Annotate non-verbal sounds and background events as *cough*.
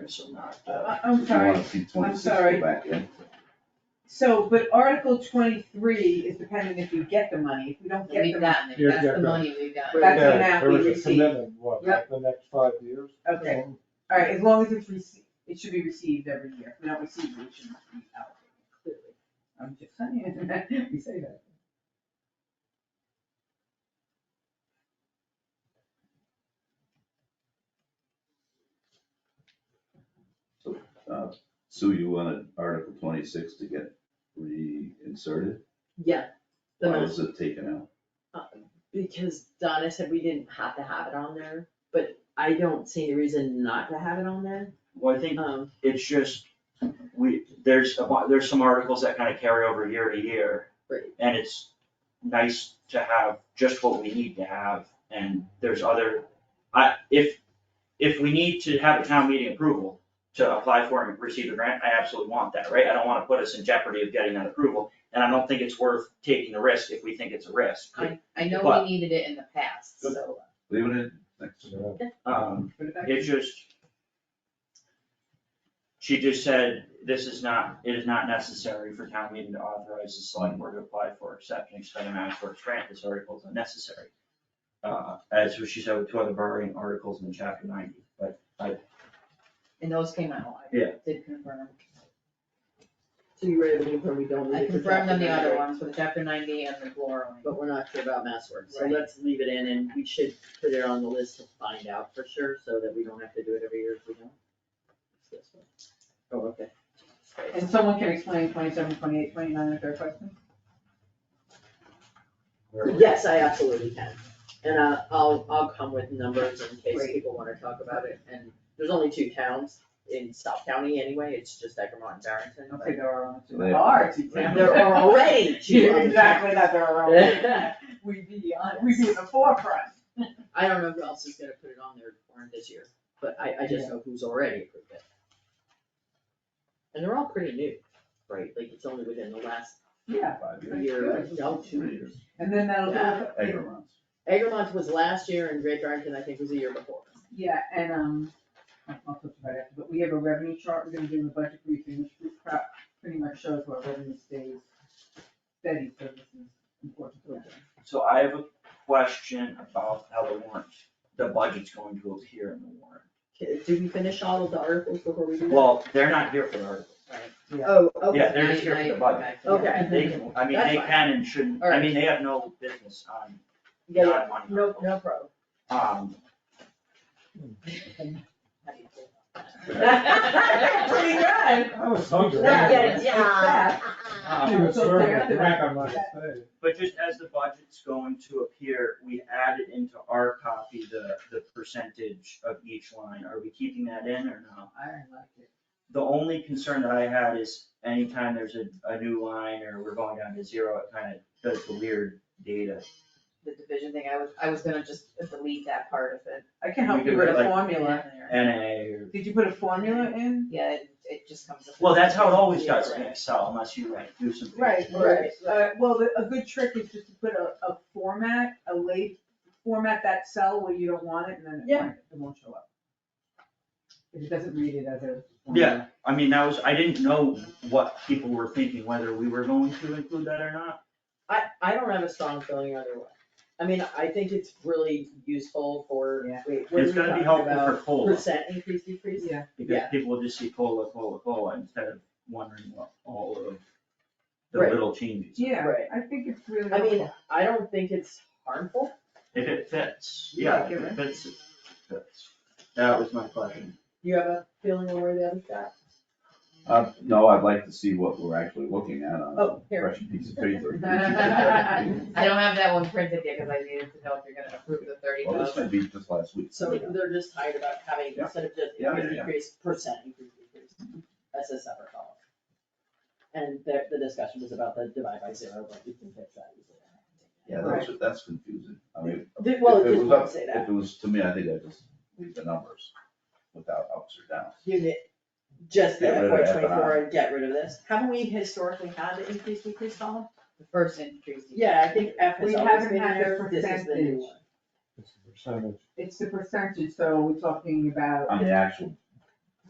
this or not, Uh, but I- I'm If you wanna sorry. see 26, go sorry. back in. So, but Article twenty-three is depending if you get the money, if you don't get We've the money, gotten it, Yeah, that's the yeah. money we've gotten. That's the Yeah, amount there we was a received. commitment, what, Yep. like the next five years? Okay. Um, alright, as long as it's received, it should be received every year, if we don't receive it, it should not be allocated, clearly. I'm just saying, *laughs* we say that. Uh, Sue, you wanted Article twenty-six to get reinserted? Yeah, the Why money, was it taken out? because Donna said we didn't have to have it on there, but I don't see any reason not to have it on there. Well, I think Um, it's just, we, there's, a lot- there's some articles that kind of carry over year to year. Right. And it's nice to have just what we need to have, and there's other, I, if, if we need to have a town meeting approval to apply for and receive a grant, I absolutely want that, right? I don't wanna put us in jeopardy of getting that approval, and I don't think it's worth taking the risk if we think it's a risk. I, I know But- we needed it in the past, so. Leave it in, next. yeah. Um, Put it back It in. just. She just said, this is not, it is not necessary for town meeting to authorize the select board to apply for accept and expend amounts for its grant, this article is unnecessary. Uh, as what she said with two other borrowing articles in chapter ninety, but And those came out, I Yeah. did confirm. So you ready to confirm we don't need I it for confirmed on the chapter other nine, ones, for the chapter ninety and the borrowing. But we're not sure about mass work, so Right. let's leave it in and we should put it on the list to find out for sure, so that we don't have to do it every year if we don't. It's this one. Oh, okay. And someone can explain twenty-seven, twenty-eight, twenty-nine if there are questions? where we- Yes, I absolutely can, and uh, I'll, I'll come with numbers in case Great. people wanna talk about it, and there's only two towns in South County anyway, it's just Eckermont and Barrington, I'll but- say there are, So they- there are two There towns. There *laughs* are already two Yeah, other Exactly, towns. that there are already, we'd be on, we'd be in the forefront. I don't know who else is gonna put it on their warrant this year, but I, I just know who's already approved it. And they're all pretty new, right, like it's only within the last Yeah, Five years, year, no, two three years. years, and then that'll go, Yeah. up- Egremonts. Egremont was last year and Great Barrington, I think, was the year before. yeah, and, um, I'll I'll talk about it after, but we have a revenue chart, we're gonna do in the budget briefing, which pre- pro- pretty much shows where revenue stays steady, so this is important to us. *laughs* So I have a question about how the warrant, the budget's going to appear in the warrant. K- Did we finish all of the articles before we do that? Well, they're not here for the article, *laughs* Oh, Yeah, okay, they're just here for the budget. okay, they can, I mean, That's they fine. can and shouldn't, I mean, they have no business on, yeah, yeah, on money. no, no problem. Um, *laughs* Pretty good. I was hungry. Yeah, yeah, I yeah. She was So serving they're- the back on my face. But just as the budget's going to appear, we added into our copy the, the percentage of each line, are we keeping that in or no? I like it. The only concern that I had is anytime there's a, a new line or we're going down to zero, it kind of does the weird data. The division thing, I was, I was gonna just delete that part of it. I can We help you could with put, a like, formula, NA or, did you put a formula in? Yeah, it, it just comes. well, that's how it always does in Excel unless you like do something. Right. Uh, well, the- a good trick is just to put a, a format, a late, format that cell where you don't want it, and then it Yeah. won't, it won't show up. If it doesn't read it as a. Yeah, I mean, that was, I didn't know what people were thinking, whether we were going to include that or not. I, I don't have a strong feeling either way. I mean, I think it's really useful for, Yeah. wait, what are It's we gonna be talking helpful about? for COLA, Percent increase, decrease? Yeah. because yeah. people will just see COLA, COLA, COLA, instead of wondering what all of the Right. little changes. Yeah, Right. I think it's really. I mean, helpful. I don't think it's harmful. If it fits, Yeah, yeah, if give it fits, it fits. That was my question. You have a feeling one way or the other, Scott? Uh, no, I'd like to see what we're actually looking at on a Oh, here. fresh piece of *laughs* paper. I don't have that one printed yet, cause I needed to know if you're gonna approve the thirty Well, this thousand. might be just last week. So they're just tired about having, Yeah. instead of just Yeah, yeah, increase, yeah. decrease, percent increase, decrease, as a separate column. And the, the discussion was about the divide by zero, but you can fix that easily. Yeah, that's, that's confusing. I mean, Did- Well, if it it didn't was want up, to say that. if it was to me, I think I'd just leave the numbers without ups or downs. Unit, just the Get rid of FY F and I. twenty-four and get rid of this. Haven't we historically had the increase, decrease column? The first increase. Yeah, I think F has We always haven't been had the there, this is the new percentage. one. It's It's the percentage. the percentage, so we're talking about, On the actual